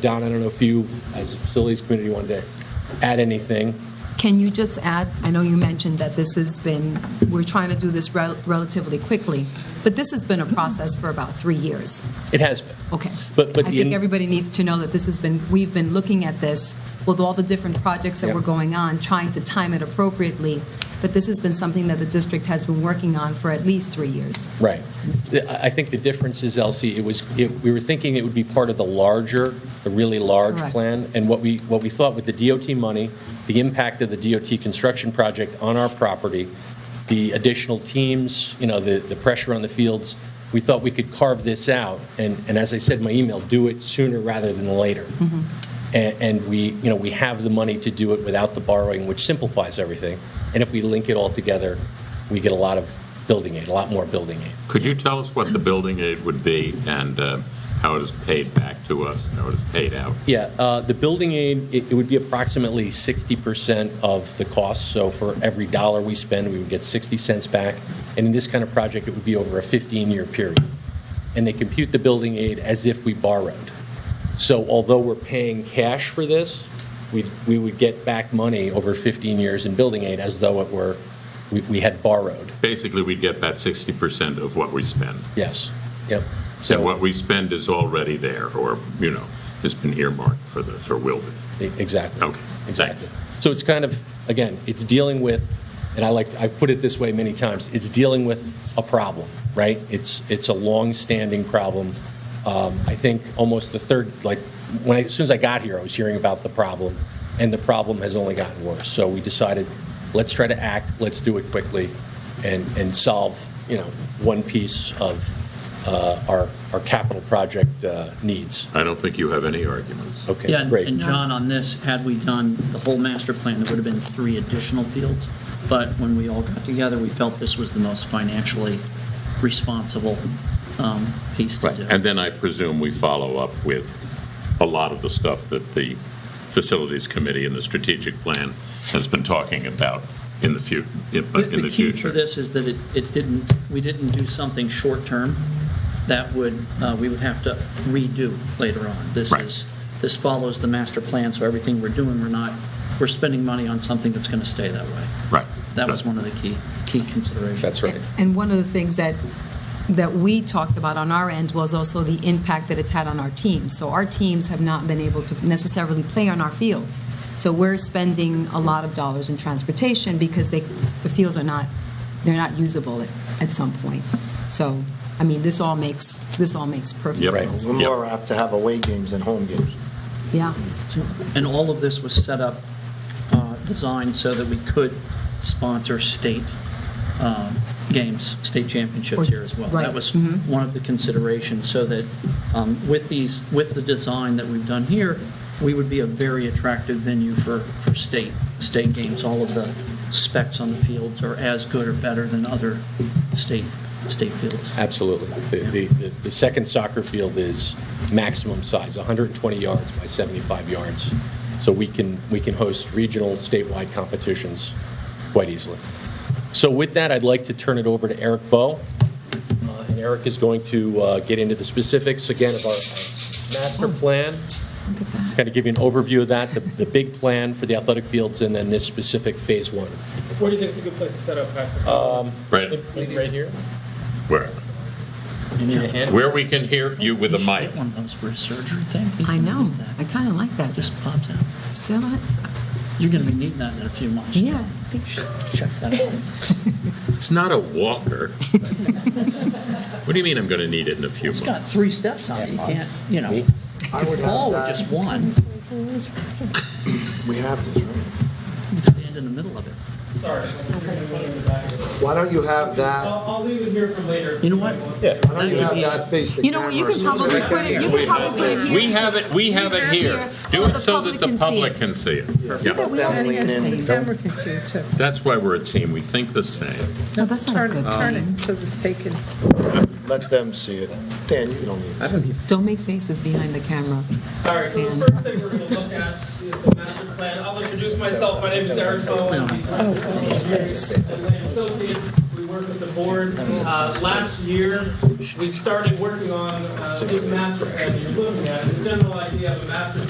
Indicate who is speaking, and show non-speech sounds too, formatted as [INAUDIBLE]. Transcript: Speaker 1: Don, I don't know if you, as a facilities committee, wanted to add anything.
Speaker 2: Can you just add, I know you mentioned that this has been, we're trying to do this rel- relatively quickly, but this has been a process for about three years.
Speaker 1: It has been.
Speaker 2: Okay.
Speaker 1: But- but
Speaker 2: I
Speaker 1: in-
Speaker 2: think everybody needs to know that this has been, we've been looking at this with all the different projects that
Speaker 1: Yep.
Speaker 2: were going on, trying to time it appropriately, but this has been something that the district has been working on for at least three years.
Speaker 1: Right. The- I I think the difference is, Elsie, it was, it- we were thinking it would be part of the larger, the really large
Speaker 2: Correct.
Speaker 1: plan. And what we, what we thought with the DOT money, the impact of the DOT construction project on our property, the additional teams, you know, the, the pressure on the fields, we thought we could carve this out. And, and as I said in my email, do it sooner rather than later. And, and we, you know, we have the money to do it without the borrowing, which simplifies everything. And if we link it all together, we get a lot of building aid, a lot more building aid.
Speaker 3: Could you tell us what the building aid would be and uh, how it is paid back to us, and how it is paid out?
Speaker 1: Yeah, uh, the building aid, it it would be approximately 60% of the cost. So for every dollar we spend, we would get 60 cents back. And in this kind of project, it would be over a 15-year period. And they compute the building aid as if we borrowed. So although we're paying cash for this, we we would get back money over 15 years in building aid as though it were, we- we had borrowed.
Speaker 3: Basically, we'd get back 60% of what we spend.
Speaker 1: Yes, yep.
Speaker 3: And
Speaker 1: So,
Speaker 3: what we spend is already there, or, you know, has been earmarked for this, or will be.
Speaker 1: e- exactly.
Speaker 3: Okay,
Speaker 1: Exactly.
Speaker 3: thanks.
Speaker 1: So it's kind of, again, it's dealing with, and I like, I've put it this way many times, it's dealing with a problem, right? It's, it's a long-standing problem. Um, I think almost the third, like, when I, as soon as I got here, I was hearing about the problem, and the problem has only gotten worse. So we decided, let's try to act, let's do it quickly, and, and solve, you know, one piece of uh, our, our capital project uh, needs.
Speaker 3: I don't think you have any arguments.
Speaker 1: Okay,
Speaker 4: Yeah, and-
Speaker 1: great.
Speaker 4: and John, on this, had we done the whole master plan, there would have been three additional fields. But when we all got together, we felt this was the most financially responsible um, piece to
Speaker 3: Right,
Speaker 4: do.
Speaker 3: and then I presume we follow up with a lot of the stuff that the Facilities Committee and the Strategic Plan has been talking about in the future, in
Speaker 4: The-
Speaker 3: in the
Speaker 4: The key for
Speaker 3: future.
Speaker 4: this is that it, it didn't, we didn't do something short-term that would, uh, we would have to redo later on. This
Speaker 3: Right.
Speaker 4: is, this follows the master plan, so everything we're doing, we're not, we're spending money on something that's going to stay that way.
Speaker 3: Right.
Speaker 4: That was one of the key, key considerations.
Speaker 1: That's right.
Speaker 2: And one of the things that, that we talked about on our end was also the impact that it's had on our teams. So our teams have not been able to necessarily play on our fields. So we're spending a lot of dollars in transportation because they, the fields are not, they're not usable at, at some point. So, I mean, this all makes, this all makes perfect
Speaker 3: Yep.
Speaker 2: sense.
Speaker 3: Right.
Speaker 5: We're more apt to have away games than home games.
Speaker 2: Yeah,
Speaker 4: And all of this was set up, uh, designed so that we could sponsor state um, games, state
Speaker 2: Or-
Speaker 4: championships here as well.
Speaker 2: right, Mm-hmm.
Speaker 4: That was one of the considerations, so that um, with these, with the design that we've done here, we would be a very attractive venue for, for state, state games. All of the specs on the fields are as good or better than other state, state fields.
Speaker 1: Absolutely. The- The, the, the second soccer field is maximum size, 120 yards by 75 yards. So we can, we can host regional, statewide competitions quite easily. So with that, I'd like to turn it over to Eric Bowe. Uh, And Eric is going to uh, get into the specifics again of our master plan,
Speaker 2: look at that.
Speaker 1: kind of give you an overview of that, the, the big plan for the athletic fields, and then this specific phase one.
Speaker 6: Where do you think is a good place to set up, Patrick?
Speaker 4: Uh,
Speaker 3: Right,
Speaker 1: Right here?
Speaker 3: where, where we can hear you with a mic.
Speaker 4: Get one of those for his surgery thing.
Speaker 2: I know, I kind of like that.
Speaker 4: It
Speaker 2: Just
Speaker 4: just pops out.
Speaker 2: sell it.
Speaker 4: You're going to be needing that in a few months.
Speaker 2: Yeah.
Speaker 4: I think you should check that out.
Speaker 3: It's not a walker. [LAUGHS] What do you mean I'm going to need it in a few
Speaker 4: It's got
Speaker 3: months?
Speaker 4: three steps on it. You can't, you know,
Speaker 5: I would
Speaker 4: fall with
Speaker 5: have
Speaker 4: just
Speaker 5: that.
Speaker 4: one.
Speaker 5: We have this, right?
Speaker 4: Stand in the middle of it.
Speaker 6: Sorry.
Speaker 5: Why don't you have that,
Speaker 6: I'll, I'll leave it here for later.
Speaker 4: You know what?
Speaker 6: Yeah.
Speaker 5: why don't you have that face the
Speaker 2: You know, what, you
Speaker 5: camera
Speaker 2: could
Speaker 5: so it's
Speaker 2: probably
Speaker 5: right
Speaker 2: put it, you
Speaker 5: there?
Speaker 2: could probably put it here.
Speaker 3: We have it, we have it here. Do it so that the public can see it.
Speaker 2: See that
Speaker 3: Yeah.
Speaker 2: we don't
Speaker 5: Definitely
Speaker 2: have
Speaker 5: an
Speaker 2: the same.
Speaker 7: Camera can see it too.
Speaker 3: That's why we're a team. We think the same.
Speaker 2: No, that's not a
Speaker 7: Turn
Speaker 2: Oh, good
Speaker 7: it, turn it so that they can.
Speaker 5: Let them see it. Dan, you don't need it.
Speaker 2: Don't make faces behind the camera.
Speaker 6: All right, so the first thing we're going to look at is the master plan. I'll introduce myself. My name is Eric Bowen. I'm the Associates. We work work with the board. Uh, Last year, we started working on uh, this master plan you're looking at. The general idea of a master